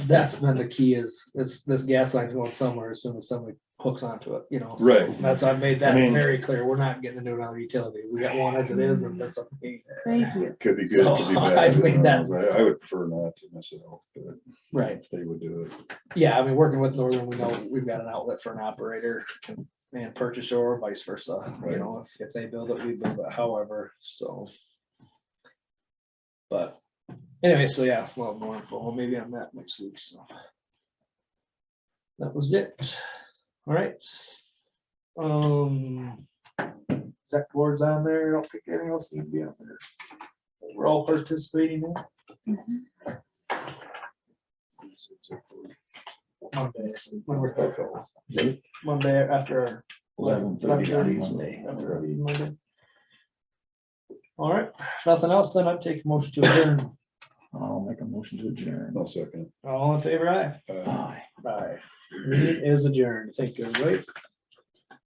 that's then the key is, this, this gas line's going somewhere as soon as somebody hooks onto it, you know? so Right. That's, I've made that I mean- very clear, we're not getting into another utility, we got one as it is, and that's up to me. Thank you. Could be good, could be So, I bad. who mean, that- knows? I, I would prefer not to myself, but Right, if they would do it. yeah, I mean, working with Northern, we know we've got an outlet for an operator and purchaser or vice versa, you Right. know, if, if they build it, we build it, however, so. But anyway, so yeah, well, more info, well, maybe on that next week, so. That was it. All right. Um. Zach boards on there, I don't think anything else needs to be on there. We're all participating now. Mm-hmm. Monday, when we're Monday after. Eleven thirty on Monday. After our meeting Monday. All right, nothing else, then I'd take motion to adjourn. I'll make a motion to adjourn. No second. All in favor, aye? Uh, Aye. Aye. Meeting is adjourned. Thank you, everybody.